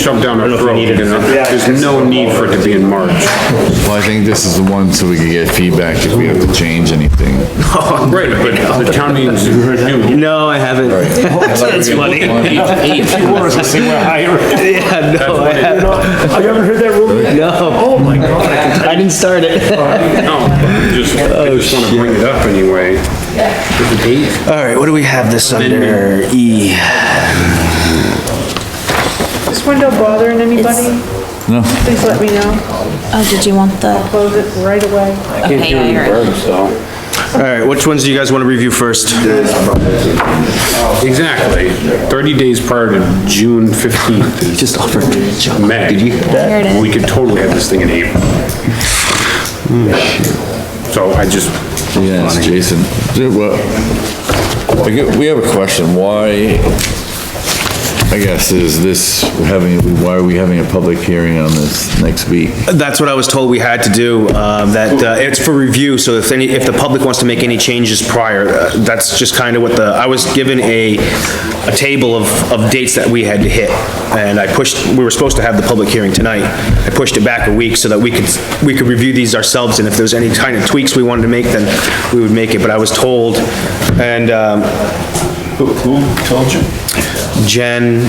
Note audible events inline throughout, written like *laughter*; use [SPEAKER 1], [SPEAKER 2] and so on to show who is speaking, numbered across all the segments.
[SPEAKER 1] shoved down our throat, you know? There's no need for it to be in March.
[SPEAKER 2] Well, I think this is the one so we can get feedback if we have to change anything.
[SPEAKER 1] Right, but the town meeting's due.
[SPEAKER 3] No, I haven't. That's funny. *laughs* Yeah, no, I haven't.
[SPEAKER 4] Have you ever heard that rumor?
[SPEAKER 3] No,
[SPEAKER 4] Oh my god.
[SPEAKER 3] *laughs* I didn't start it.
[SPEAKER 1] No, just, I just wanna bring it up anyway.
[SPEAKER 3] All right, what do we have this under? E.
[SPEAKER 5] This window bothering anybody?
[SPEAKER 2] No.
[SPEAKER 5] Please let me know.
[SPEAKER 6] Oh, did you want the,
[SPEAKER 5] Close it right away.
[SPEAKER 6] okay, I heard.
[SPEAKER 3] All right, which ones do you guys want to review first?
[SPEAKER 1] Exactly. Thirty days prior to June fifteenth is
[SPEAKER 3] Just offer.
[SPEAKER 1] May.
[SPEAKER 6] Here it is.
[SPEAKER 1] We could totally have this thing in April. So I just,
[SPEAKER 2] Yes, Jason. Dude, well, I get- We have a question. Why, I guess, is this, we're having, why are we having a public hearing on this next week?
[SPEAKER 3] That's what I was told we had to do, um, that, uh, it's for review, so if any, if the public wants to make any changes prior, uh, that's just kind of what the, I was given a, a table of, of dates that we had to hit, and I pushed, we were supposed to have the public hearing tonight. I pushed it back a week so that we could, we could review these ourselves, and if there's any kind of tweaks we wanted to make, then we would make it, but I was told, and, um, Jen,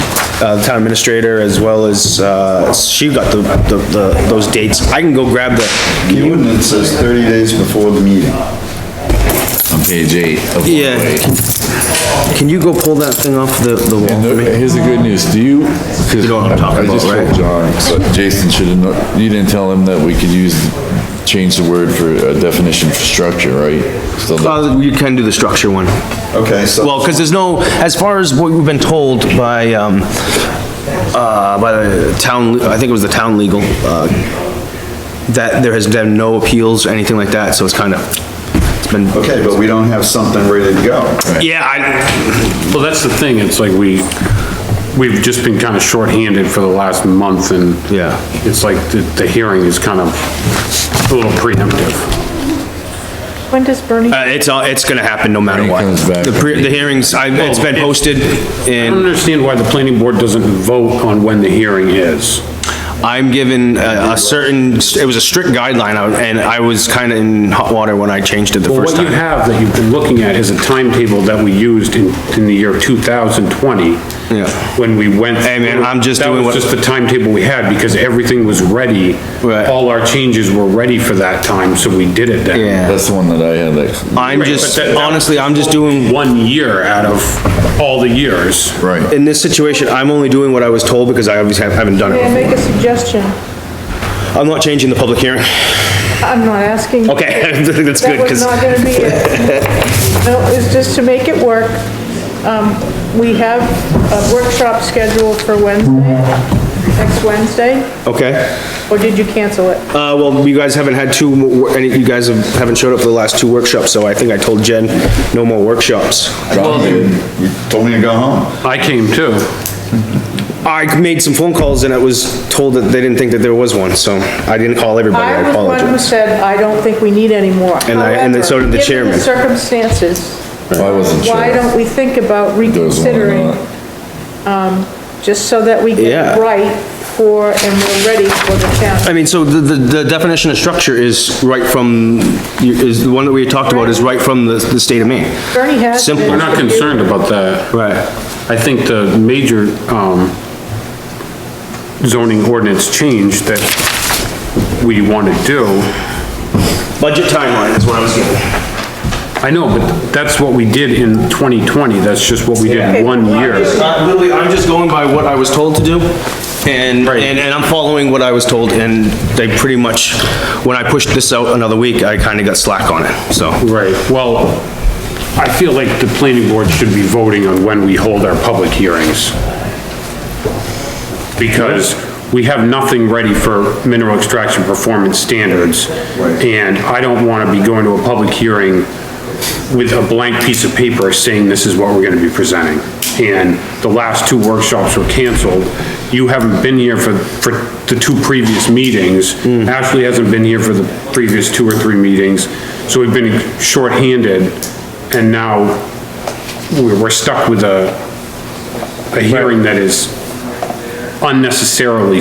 [SPEAKER 3] uh, the town administrator, as well as, uh, she got the, the, the- those dates. I can go grab the,
[SPEAKER 7] The ordinance says 30 days before the meeting.
[SPEAKER 2] On page eight of one
[SPEAKER 3] Yeah.
[SPEAKER 2] way.
[SPEAKER 3] can you go pull that thing off the, the wall
[SPEAKER 2] And
[SPEAKER 3] for
[SPEAKER 2] the-
[SPEAKER 3] me?
[SPEAKER 2] here's the good news. Do you? 'cause
[SPEAKER 3] You know what I'm talking
[SPEAKER 2] I just
[SPEAKER 3] about, right?
[SPEAKER 2] told John, so Jason should have, kno- you didn't tell him that we could use, change the word for a definition for structure, right? Still not-
[SPEAKER 3] Uh, you can do the structure one.
[SPEAKER 7] Okay, so
[SPEAKER 3] Well, because there's no, as far as what we've been told by, um, uh, by the town, I think it was the town legal, uh, that there has been no appeals or anything like that, so it's kind of, it's been,
[SPEAKER 7] Okay, but we don't have something ready to go.
[SPEAKER 3] yeah, I,
[SPEAKER 1] well, that's the thing, it's like we, we've just been kinda shorthanded for the last month and
[SPEAKER 3] Yeah.
[SPEAKER 1] it's like the, the hearing is kind of a little preemptive.
[SPEAKER 5] When does Bernie?
[SPEAKER 3] Uh, it's, all- it's gonna happen no matter
[SPEAKER 2] Bernie
[SPEAKER 3] what. Oh,
[SPEAKER 2] comes back.
[SPEAKER 3] The pre, the hearings, I, it's been posted,
[SPEAKER 1] I don't
[SPEAKER 3] and
[SPEAKER 1] understand why the planning board doesn't vote on when the hearing is.
[SPEAKER 3] I'm given a a certain, it was a strict guideline, I- and I was kinda in hot water when I changed it the
[SPEAKER 1] Well,
[SPEAKER 3] first
[SPEAKER 1] what you
[SPEAKER 3] time.
[SPEAKER 1] have that you've been looking at is a timetable that we used in, in the year 2020.
[SPEAKER 3] Yeah.
[SPEAKER 1] When we went.
[SPEAKER 3] Hey, man,
[SPEAKER 1] through-
[SPEAKER 3] I'm just doing what-
[SPEAKER 1] That was just the timetable we had because everything was ready.
[SPEAKER 3] Right.
[SPEAKER 1] All our changes were ready for that time, so we did it then.
[SPEAKER 3] Yeah.
[SPEAKER 2] That's the one that I had that,
[SPEAKER 3] I'm
[SPEAKER 1] Right,
[SPEAKER 3] just,
[SPEAKER 1] but that- that-
[SPEAKER 3] honestly, I'm just doing,
[SPEAKER 1] One year out of all the years.
[SPEAKER 2] right.
[SPEAKER 3] in this situation, I'm only doing what I was told, because I obviously haven't done
[SPEAKER 5] May I
[SPEAKER 3] it.
[SPEAKER 5] make a suggestion?
[SPEAKER 3] I'm not changing the public hearing. *laughs*
[SPEAKER 5] I'm not asking.
[SPEAKER 3] Okay, *laughs* that's good,
[SPEAKER 5] That was
[SPEAKER 3] because,
[SPEAKER 5] not gonna be it.
[SPEAKER 3] *laughs*
[SPEAKER 5] No, it's just to make it work. Um, we have a workshop scheduled for Wednesday, next Wednesday,
[SPEAKER 3] okay.
[SPEAKER 5] or did you cancel it?
[SPEAKER 3] Uh, well, you guys haven't had two, mo- any, you guys have- haven't showed up for the last two workshops, so I think I told Jen, no more workshops.
[SPEAKER 7] John, you you told me to go home.
[SPEAKER 1] I came too.
[SPEAKER 3] I made some phone calls and I was told that they didn't think that there was one, so I didn't call everybody, I
[SPEAKER 5] I was one who
[SPEAKER 3] apologize.
[SPEAKER 5] said, I don't think we need any more.
[SPEAKER 3] And I- and so did the
[SPEAKER 5] However,
[SPEAKER 3] chairman.
[SPEAKER 5] Given the circumstances,
[SPEAKER 2] I wasn't sure.
[SPEAKER 5] why don't we think about
[SPEAKER 2] There was one or
[SPEAKER 5] reconsidering,
[SPEAKER 2] not.
[SPEAKER 5] just so that we get
[SPEAKER 3] Yeah.
[SPEAKER 5] it right for, and we're ready for the
[SPEAKER 3] I
[SPEAKER 5] town?
[SPEAKER 3] mean, so the, the the definition of structure is right from, is, the one that we talked about is right from the, the state of Maine.
[SPEAKER 5] Bernie has.
[SPEAKER 3] Simple.
[SPEAKER 1] We're not concerned about that.
[SPEAKER 3] Right.
[SPEAKER 1] I think the major, um, zoning ordinance change that we want to do
[SPEAKER 3] Budget timeline is what I was getting.
[SPEAKER 1] I know, but that's what we did in 2020, that's just what we did in one year.
[SPEAKER 3] Uh, Lily, I'm just going by what I was told to do, and,
[SPEAKER 1] Right.
[SPEAKER 3] and and I'm following what I was told, and they pretty much, when I pushed this out another week, I kinda got slack on it, so.
[SPEAKER 1] Right, well, I feel like the planning board should be voting on when we hold our public hearings. Because we have nothing ready for mineral extraction performance standards. And I don't want to be going to a public hearing with a blank piece of paper saying this is what we're going to be presenting. And the last two workshops were canceled. You haven't been here for, for the two previous meetings. Ashley hasn't been here for the previous two or three meetings. So we've been shorthanded and now we're we're stuck with a, a hearing that is unnecessarily